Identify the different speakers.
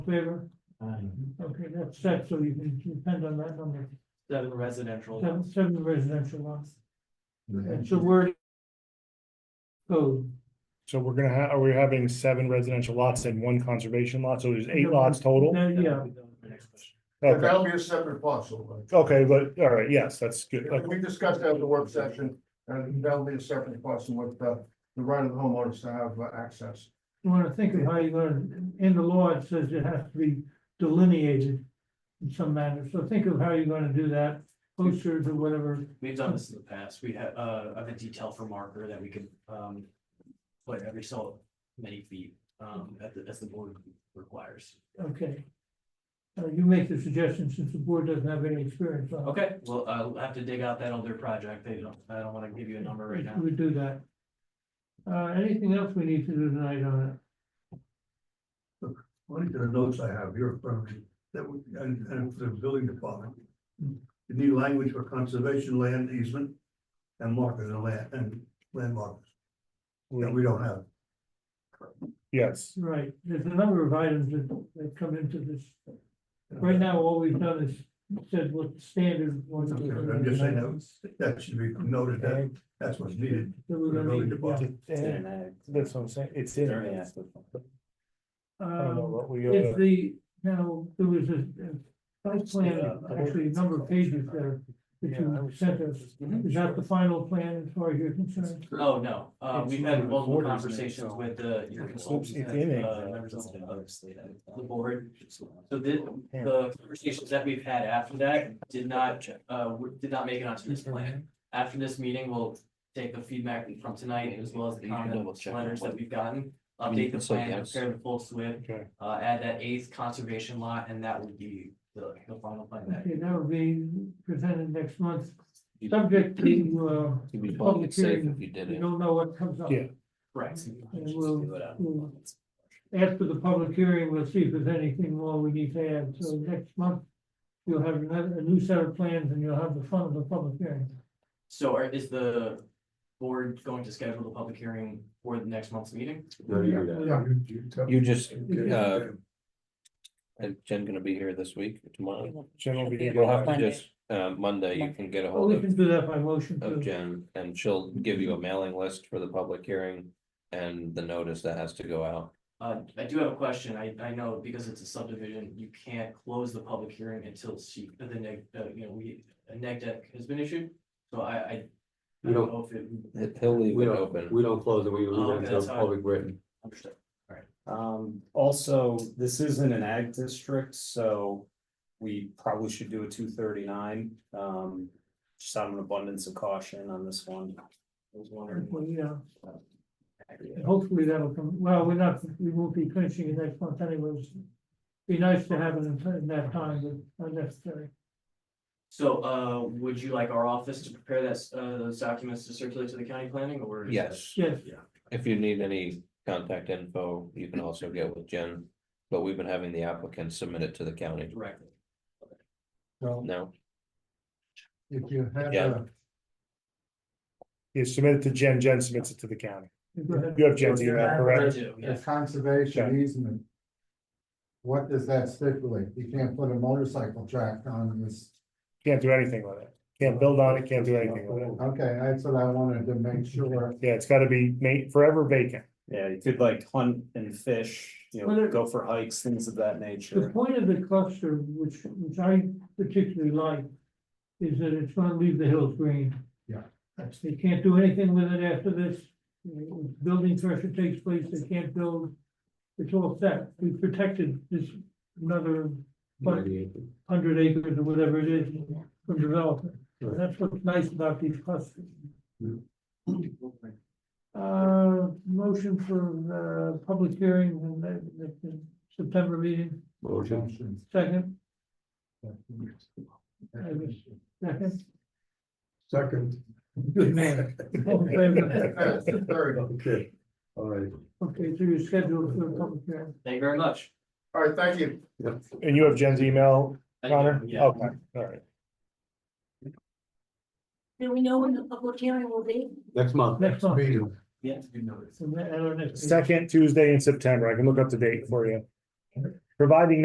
Speaker 1: favor,
Speaker 2: Seven
Speaker 1: okay, that's set, so you can depend on that number,
Speaker 2: residential.
Speaker 1: seven, seven residential lots, and so
Speaker 2: Well,
Speaker 1: word. Code.
Speaker 3: So we're gonna ha- are we having seven residential lots and one conservation lot, so there's eight lots total?
Speaker 1: Uh, Yeah,
Speaker 3: Okay,
Speaker 4: That'll be a separate parcel.
Speaker 3: okay, but, all right, yes, that's good,
Speaker 4: Like,
Speaker 3: okay,
Speaker 4: We discussed that at the work session, and that'll be a separate parcel with the, the right of the homeowners to have uh, access.
Speaker 1: you wanna think of how you're gonna, in the law, it says it has to be delineated in some manner, so think of how you're gonna do that, posters or whatever,
Speaker 2: We've done this in the past. We have, uh, I have a detail for marker that we could, um, put every so many feet, um, at the, as the board requires.
Speaker 1: okay. Uh, you make the suggestion since the board doesn't have any experience on. it.
Speaker 2: Okay, well, I'll have to dig out that older project. They don't, I don't wanna give you a number right now.
Speaker 1: We would do that. Uh, anything else we need to do tonight on it?
Speaker 5: According to the notes I have here in front of me, that would, and, and for the building department. You need language for conservation land easement and markers and land, and landmarks that
Speaker 3: We-
Speaker 5: we don't have.
Speaker 3: yes,
Speaker 1: Right, there's a number of items that, that come into this. Right now, all we've done is said what the standard was.
Speaker 5: Okay, I'm just saying that, that should be noted, that, that's what's needed.
Speaker 1: That we're gonna need, yeah.
Speaker 3: that's what I'm saying, it's in. there. I don't know
Speaker 1: Um,
Speaker 3: what we,
Speaker 1: If
Speaker 3: uh,
Speaker 1: the, now, there was a, a site plan, actually a number of pages there that you sent us. Is that the final plan as far as you're concerned?
Speaker 2: Oh, no, uh,
Speaker 3: It's
Speaker 2: we've had
Speaker 3: not
Speaker 2: multiple
Speaker 3: recorded, so-
Speaker 2: conversations with the, your
Speaker 3: It's
Speaker 2: consultants,
Speaker 3: in
Speaker 2: uh,
Speaker 3: it.
Speaker 2: members of the the board. So the, the conversations that we've had after that did not, uh, were- did not make it onto this plan. After this meeting, we'll take the feedback from tonight as well as the comments, letters that we've gotten. Update the plan, prepare the full SWIP,
Speaker 3: okay,
Speaker 2: uh, add that eighth conservation lot, and that will be the, the final plan that.
Speaker 1: Okay, that will be presented next month, subject to, uh,
Speaker 6: You'd be
Speaker 1: public
Speaker 6: public safe
Speaker 1: hearing.
Speaker 6: if you did
Speaker 1: we
Speaker 6: it.
Speaker 1: don't know what comes up.
Speaker 3: Yeah.
Speaker 2: Right.
Speaker 1: And we'll, we'll- after the public hearing, we'll see if there's anything more we need to add, so next month. You'll have another, a new set of plans and you'll have the fun of the public hearing.
Speaker 2: So are, is the board going to schedule the public hearing for the next month's meeting?
Speaker 1: Yeah.
Speaker 6: You just, uh,
Speaker 5: Okay.
Speaker 6: is Jen gonna be here this week, or tomorrow?
Speaker 3: general.
Speaker 7: Should be
Speaker 3: meeting.
Speaker 6: You'll have to
Speaker 7: Monday.
Speaker 6: just, uh, Monday, you can get a
Speaker 1: Well,
Speaker 6: hold
Speaker 1: we
Speaker 6: of,
Speaker 1: can do that by motion
Speaker 6: of
Speaker 1: too.
Speaker 6: Jen, and she'll give you a mailing list for the public hearing. And the notice that has to go out,
Speaker 2: Uh, I do have a question. I, I know because it's a subdivision, you can't close the public hearing until she, the neg, uh, you know, we, a neg deck has been issued. So I, I. I
Speaker 8: We
Speaker 2: don't
Speaker 8: don't-
Speaker 2: know if it.
Speaker 6: He- he'll leave
Speaker 8: We
Speaker 6: it
Speaker 8: don't,
Speaker 6: open,
Speaker 8: we don't close it, we leave
Speaker 2: Oh,
Speaker 8: it until
Speaker 2: that's how I-
Speaker 8: public written.
Speaker 2: Understood.
Speaker 9: Um, also, this isn't an ag district, so we probably should do a two thirty-nine, um, just out of an abundance of caution on this one. I was wondering.
Speaker 1: Well, yeah, and hopefully that'll come, well, we're not, we won't be clinching it next month anyways. Be nice to have it in in that time, but unnecessary.
Speaker 2: So, uh, would you like our office to prepare that, s- uh, those documents to circulate to the county planning or? is that-
Speaker 6: yes,
Speaker 1: Yes,
Speaker 6: if you need any contact info, you can also get with Jen. But we've been having the applicants submit it to the county
Speaker 2: Directly.
Speaker 5: Well,
Speaker 6: now,
Speaker 5: if you had,
Speaker 6: Yeah.
Speaker 5: uh,
Speaker 3: You submit it to Jen, Jen submits it to the county.
Speaker 1: go ahead.
Speaker 3: You have Jen's email,
Speaker 2: I
Speaker 3: correct?
Speaker 2: do,
Speaker 4: The
Speaker 2: yes.
Speaker 4: conservation easement. What does that stipulate? You can't put a motorcycle track on this.
Speaker 3: Can't do anything with it, can't build on it, can't do anything with it,
Speaker 4: Okay, that's what I wanted to make sure.
Speaker 3: yeah, it's gotta be made forever vacant.
Speaker 9: Yeah, you could like hunt and fish, you
Speaker 1: Well,
Speaker 9: know,
Speaker 1: there-
Speaker 9: go for hikes, things of that
Speaker 1: The
Speaker 9: nature.
Speaker 1: point of the cluster, which, which I particularly like, is that it's gonna leave the hills green.
Speaker 4: Yeah.
Speaker 1: That's- They can't do anything with it after this, building pressure takes place, they can't build. It's all set, we protected this another But- hundred acres or whatever it is from development. And That's what's nice about these clusters. Uh, motion for, uh, public hearing in the, the- the September meeting,
Speaker 8: Motion.
Speaker 1: second, second.
Speaker 5: Second.
Speaker 1: Good man. All in favor?
Speaker 4: Third.
Speaker 5: Okay, all right.
Speaker 1: Okay, so you're scheduled for a public hearing.
Speaker 2: Thank you very much.
Speaker 4: All right, thank you.
Speaker 3: And you have Jen's email,
Speaker 2: I do,
Speaker 3: Connor?
Speaker 2: yeah.
Speaker 3: Okay, all right.
Speaker 7: Do we know when the public hearing will be?
Speaker 8: Next month.
Speaker 1: Next one.
Speaker 5: Meeting.
Speaker 2: Yeah, you know this.
Speaker 1: So that- I don't know.
Speaker 3: Second Tuesday in September, I can look up the date for you. providing